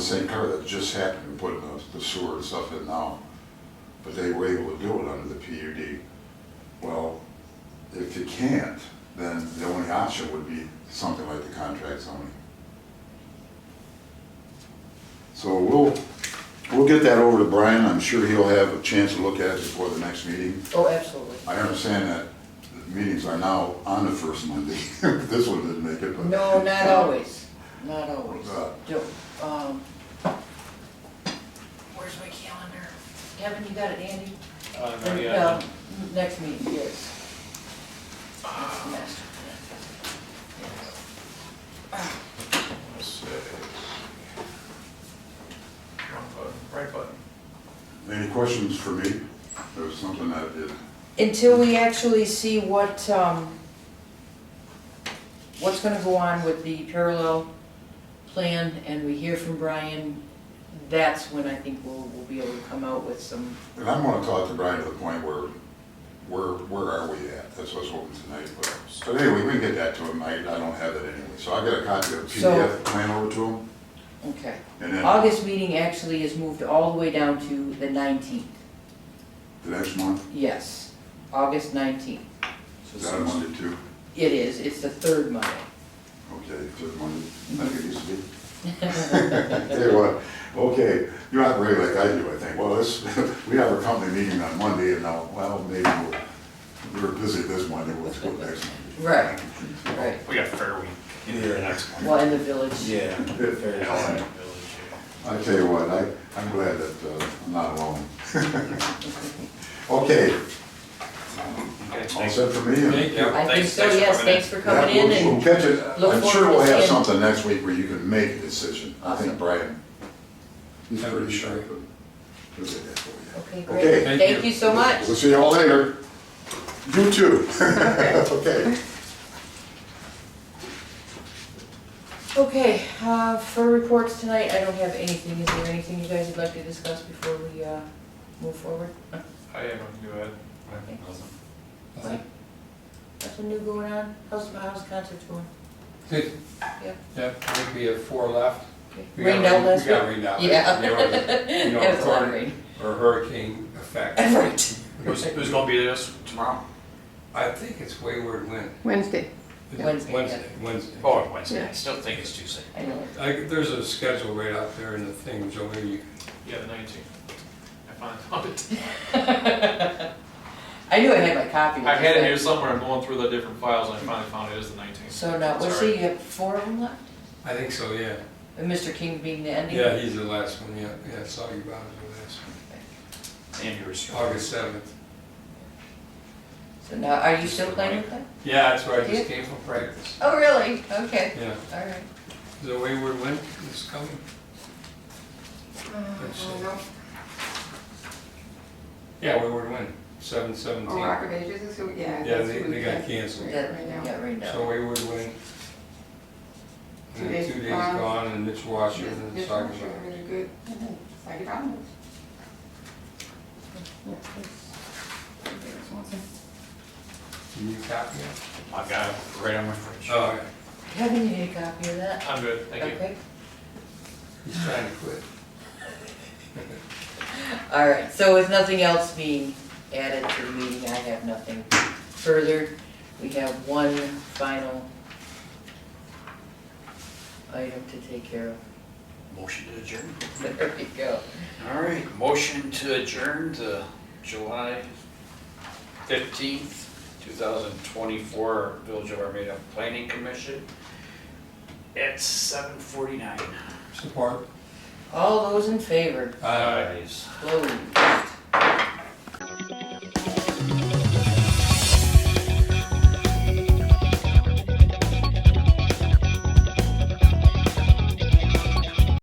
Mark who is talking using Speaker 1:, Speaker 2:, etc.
Speaker 1: same car that just happened to put in the- the sewer and stuff in now, but they were able to do it under the PUD. Well, if you can't, then the only option would be something like the contract zoning. So we'll, we'll get that over to Brian, I'm sure he'll have a chance to look at it before the next meeting.
Speaker 2: Oh, absolutely.
Speaker 1: I understand that the meetings are now on the first Monday, this one didn't make it, but.
Speaker 2: No, not always, not always.
Speaker 1: Uh.
Speaker 2: Do- um, Where's my calendar? Kevin, you got it, Andy?
Speaker 3: Uh,
Speaker 2: Or,
Speaker 3: no, yeah,
Speaker 2: um, Next meeting, yes. That's the master plan.
Speaker 3: let's see. Wrong button, Right button.
Speaker 1: Any questions for me? There was something that did,
Speaker 2: Until we actually see what, um, what's gonna go on with the parallel plan and we hear from Brian, that's when I think we'll, we'll be able to come out with some,
Speaker 1: and I'm gonna talk to Brian to the point where, where, where are we at? That's what's open tonight, but, so anyway, we can get that to him, I, I don't have it anyway, so I got a copy of the
Speaker 2: So-
Speaker 1: PDF plan over to him,
Speaker 2: okay.
Speaker 1: and then
Speaker 2: August meeting actually is moved all the way down to the nineteenth,
Speaker 1: the next month,
Speaker 2: yes, August nineteenth.
Speaker 1: is that a Monday too?
Speaker 2: It is, it's the third Monday.
Speaker 1: Okay, third Monday, like it used to be. Tell you what, okay, you're not really like I do, I think, well, this, we have a company meeting on Monday, and now, well, maybe we're, we're busy this Monday, we'll do it next
Speaker 2: Right,
Speaker 1: Monday.
Speaker 2: right,
Speaker 3: We got Fair Week in here next month.
Speaker 2: well, in the village.
Speaker 4: Yeah.
Speaker 3: Yeah,
Speaker 4: fair
Speaker 3: Allied
Speaker 4: enough.
Speaker 3: Village, yeah.
Speaker 1: I tell you what, I, I'm glad that uh, I'm not alone. Okay,
Speaker 3: Okay,
Speaker 1: all
Speaker 3: thanks.
Speaker 1: set for me?
Speaker 3: Yeah,
Speaker 2: I think
Speaker 3: thanks-
Speaker 2: so,
Speaker 3: thanks for
Speaker 2: yes,
Speaker 3: coming in.
Speaker 2: thanks for
Speaker 1: Yeah,
Speaker 2: coming in
Speaker 1: we'll- We'll
Speaker 2: and,
Speaker 1: catch it,
Speaker 2: look
Speaker 1: I'm sure
Speaker 2: forward to
Speaker 1: we'll have
Speaker 2: seeing-
Speaker 1: something next week where you can make a decision, I think Brian. He's
Speaker 5: That would
Speaker 1: pretty
Speaker 5: be
Speaker 1: sharp.
Speaker 5: great.
Speaker 1: He'll get that for you.
Speaker 2: okay,
Speaker 1: Okay,
Speaker 2: great,
Speaker 5: thank
Speaker 2: thank
Speaker 5: you.
Speaker 2: you so much.
Speaker 1: We'll see you all later. You too. Okay.
Speaker 2: Okay, uh, for reports tonight, I don't have anything, is there anything you guys would like to discuss before we, uh, move forward?
Speaker 3: I am, go ahead.
Speaker 5: Uh-huh.
Speaker 2: Mike? Nothing new going on, how's, how's concerts going?
Speaker 5: Good.
Speaker 2: Yep.
Speaker 5: Yep, I think we have four left. We got
Speaker 2: Rained out
Speaker 5: rain-
Speaker 2: last
Speaker 5: We got
Speaker 2: week?
Speaker 5: rained out.
Speaker 2: Yeah.
Speaker 5: You know, the- you know,
Speaker 2: It was a lot of
Speaker 5: tornado
Speaker 2: rain.
Speaker 5: Or hurricane effect.
Speaker 2: Right.
Speaker 3: Who's, who's gonna be this tomorrow?
Speaker 5: I think it's wayward wind.
Speaker 6: Wednesday.
Speaker 2: Wednesday, yeah.
Speaker 5: Wednesday, Wednesday.
Speaker 3: Oh, Wednesday, I
Speaker 6: Yeah.
Speaker 3: still think it's Tuesday.
Speaker 2: I know,
Speaker 5: I, there's a schedule right out there in the thing, Jolene, you
Speaker 3: Yeah, the nineteenth. I finally found it.
Speaker 2: I knew I had my copy.
Speaker 3: I had it here somewhere, I'm going through the different files, and I finally found it is the nineteenth.
Speaker 2: So now, let's see, you have four of them left,
Speaker 5: I think so, yeah.
Speaker 2: and Mr. Uh, King being the ending?
Speaker 5: Yeah, he's the last one, yeah, yeah, I saw you about it the last one.
Speaker 3: And yours.
Speaker 5: August seventh.
Speaker 2: So now, are you still playing with them?
Speaker 5: Yeah, that's where I just came from practice.
Speaker 2: Oh, really? Okay,
Speaker 5: Yeah,
Speaker 2: all right.
Speaker 5: the wayward wind is coming. Let's see. Yeah, wayward wind, seven seventeen.
Speaker 6: Oh, Rock of Ages is who, yeah.
Speaker 5: Yeah,
Speaker 6: that's
Speaker 5: they,
Speaker 6: who
Speaker 5: they
Speaker 6: we
Speaker 5: got
Speaker 6: got.
Speaker 5: canceled.
Speaker 2: Yeah,
Speaker 6: Right now.
Speaker 2: yeah, right now.
Speaker 5: So we would win.
Speaker 6: Two
Speaker 5: And then
Speaker 6: days
Speaker 5: two days
Speaker 6: gone.
Speaker 5: gone and Mitch
Speaker 6: This-
Speaker 5: Washington is
Speaker 6: this
Speaker 5: talking
Speaker 6: one's
Speaker 5: about.
Speaker 6: really good. Psychic Animals.
Speaker 5: Can you copy it?
Speaker 3: I've got it right on my fridge.
Speaker 5: Oh, yeah.
Speaker 2: Kevin, you need a copy of that?
Speaker 3: I'm good, thank you.
Speaker 2: Okay,
Speaker 5: he's trying to quit.
Speaker 2: all right, so with nothing else being added to the meeting, I have nothing further. We have one final item to take care
Speaker 7: Motion to adjourn.
Speaker 2: of. There we go.
Speaker 7: All right, motion to adjourn to July fifteenth, two thousand twenty-four, Village of Armada Planning Commission at seven forty-nine.
Speaker 5: Support.
Speaker 2: All those in favor,
Speaker 5: Aye.
Speaker 7: Ayes.
Speaker 2: close.